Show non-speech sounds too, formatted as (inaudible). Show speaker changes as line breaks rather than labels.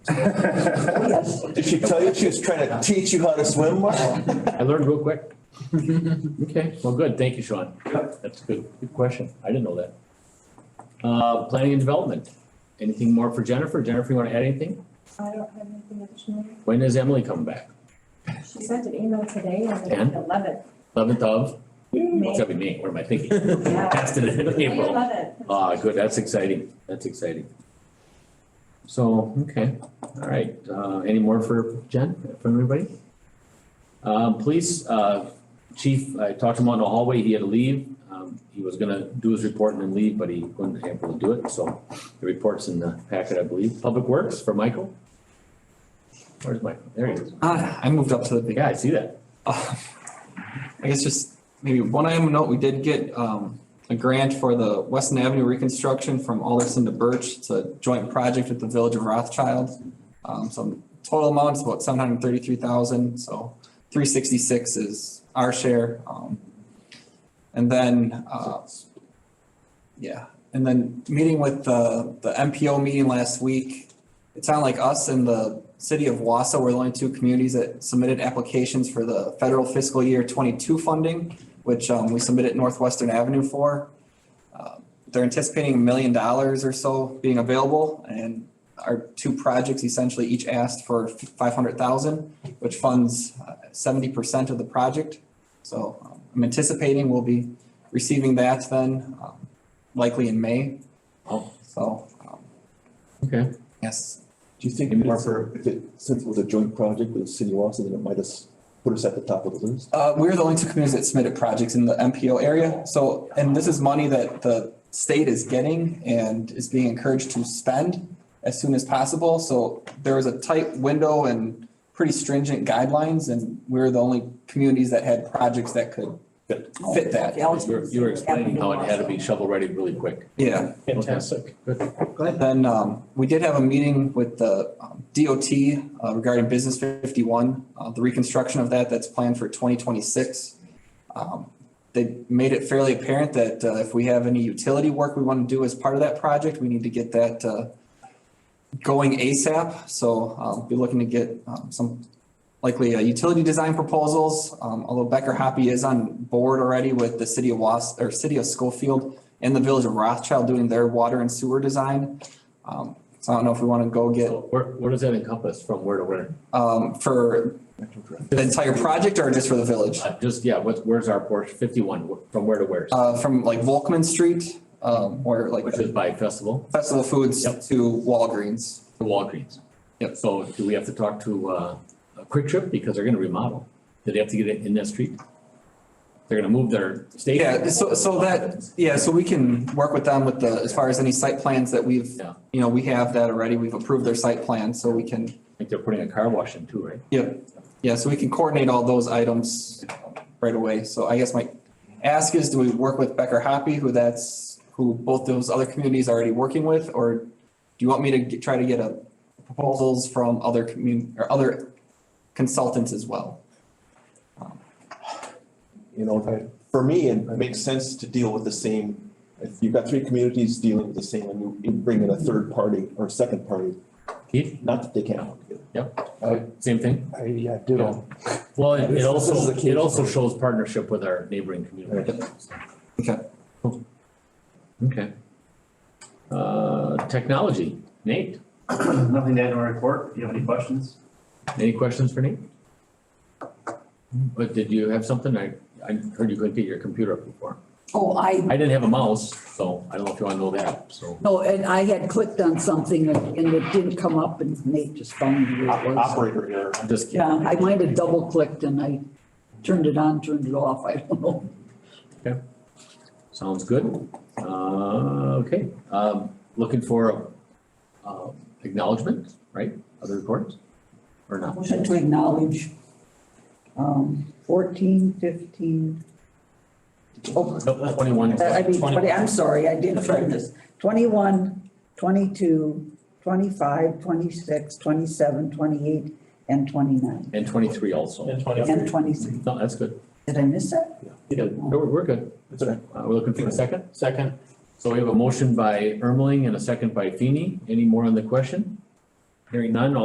Did she tell you she was trying to teach you how to swim, Mark?
I learned real quick. Okay, well, good, thank you, Sean. That's a good, good question, I didn't know that. Uh, planning and development, anything more for Jennifer? Jennifer, you wanna add anything?
I don't have anything additional.
When does Emily come back?
She sent an email today on
And?
the eleventh.
Eleventh of,
May.
it's gotta be me, what am I thinking? (laughs)
Yeah.
Passed it in
May
April.
11th.
Ah, good, that's exciting, that's exciting. So, okay, all right, uh, any more for Jen, from everybody? Um, police, uh, chief, I talked to him out in the hallway, he had to leave, um, he was gonna do his report and then leave, but he wasn't able to do it, so the report's in the packet, I believe, Public Works for Michael? Where's Michael, there he is,
Ah, I moved up to the big.
yeah, I see that,
Uh, (laughs) I guess just maybe one item of note, we did get um a grant for the Weston Avenue reconstruction from Alderson to Birch. It's a joint project with the Village of Rothschild. Um, so total amount's about seven hundred thirty-three thousand, so three sixty-six is our share. Um, and then uh, yeah, and then meeting with the the MPO meeting last week, it sounded like us and the city of Wausau were the only two communities that submitted applications for the federal fiscal year twenty-two funding, which um, we submitted Northwestern Avenue for. Uh, They're anticipating a million dollars or so being available, and our two projects essentially each asked for five hundred thousand, which funds uh, seventy percent of the project. So um, I'm anticipating we'll be receiving that then, um, likely in May.
Oh.
So, um,
okay.
yes,
Do you think,
Maybe
Mark,
it's a-
if it, since it was a joint project with the city of Wausau, then it might have s- put us at the top of the list?
Uh, we're the only two communities that submitted projects in the MPO area, so, and this is money that the state is getting and is being encouraged to spend as soon as possible, so there was a tight window and pretty stringent guidelines, and we're the only communities that had projects that could fit that,
You were, you were explaining how it had to be shovel-ready really quick.
yeah.
Fantastic. Good.
Then um, we did have a meeting with the um, DOT uh, regarding Business 51, uh, the reconstruction of that that's planned for 2026. Um, They made it fairly apparent that uh, if we have any utility work we want to do as part of that project, we need to get that uh, going ASAP. So I'll be looking to get um, some likely uh, utility design proposals, um, although Becker Hoppy is on board already with the city of Was, or city of Schofield and the village of Rothschild doing their water and sewer design. Um, so I don't know if we want to go get,
So where, where does that encompass from where to where?
um, for the entire project or just for the village?
Uh, Just, yeah, what's, where's our portion, fifty-one, wh- from where to where?
Uh, from like Volkman Street, um, or like
Which is by festival,
Festival Foods
Yep.
to Walgreens.
to Walgreens.
Yep.
So do we have to talk to, uh, a Quick Trip because they're gonna remodel? Do they have to get it in that street? They're gonna move their station.
Yeah, so, so that, yeah, so we can work with them with the, as far as any site plans that we've,
Yeah.
you know, we have that already. We've approved their site plan, so we can
I think they're putting a car wash in too, right?
Yep, yeah, so we can coordinate all those items right away. So I guess my ask is, do we work with Becker Happy, who that's, who both those other communities are already working with? Or do you want me to get- try to get a proposals from other commun, or other consultants as well?
You know, I- for me, it makes sense to deal with the same, if you've got three communities dealing with the same, and you- you bring in a third party or a second party,
Keith,
not that they can't work together.
Uh,
same thing?
I, yeah, ditto.
Well, it it
This- this is
also,
the key.
it also shows partnership with our neighboring community.
Okay.
Cool. Okay. Uh, technology, Nate?
Nothing to add to our report. Do you have any questions?
Any questions for Nate? But did you have something? I, I heard you couldn't get your computer up before.
Oh, I,
I didn't have a mouse, so I don't know if you wanna know that, so.
no, and I had clicked on something and and it didn't come up and Nate just found me where it was.
Operator error.
I'm just kidding.
Yeah, I might have double clicked and I turned it on, turned it off, I don't know.
Sounds good. Uh, okay, um, looking for, um, acknowledgement, right? Other reports? Or not?
Motion to acknowledge, um, fourteen, fifteen, oh,
Nope, Twenty-one.
I mean, twenty, I'm sorry, I didn't turn this. Twenty-one, twenty-two, twenty-five, twenty-six, twenty-seven, twenty-eight, and twenty-nine,
And twenty-three also.
and twenty-three.
No, that's good.
Did I miss that?
Yeah, we're, we're good.
That's all right.
Uh, we're looking for a second? Second. So we have a motion by Ermeling and a second by Feeny. Any more on the question? Hearing none, all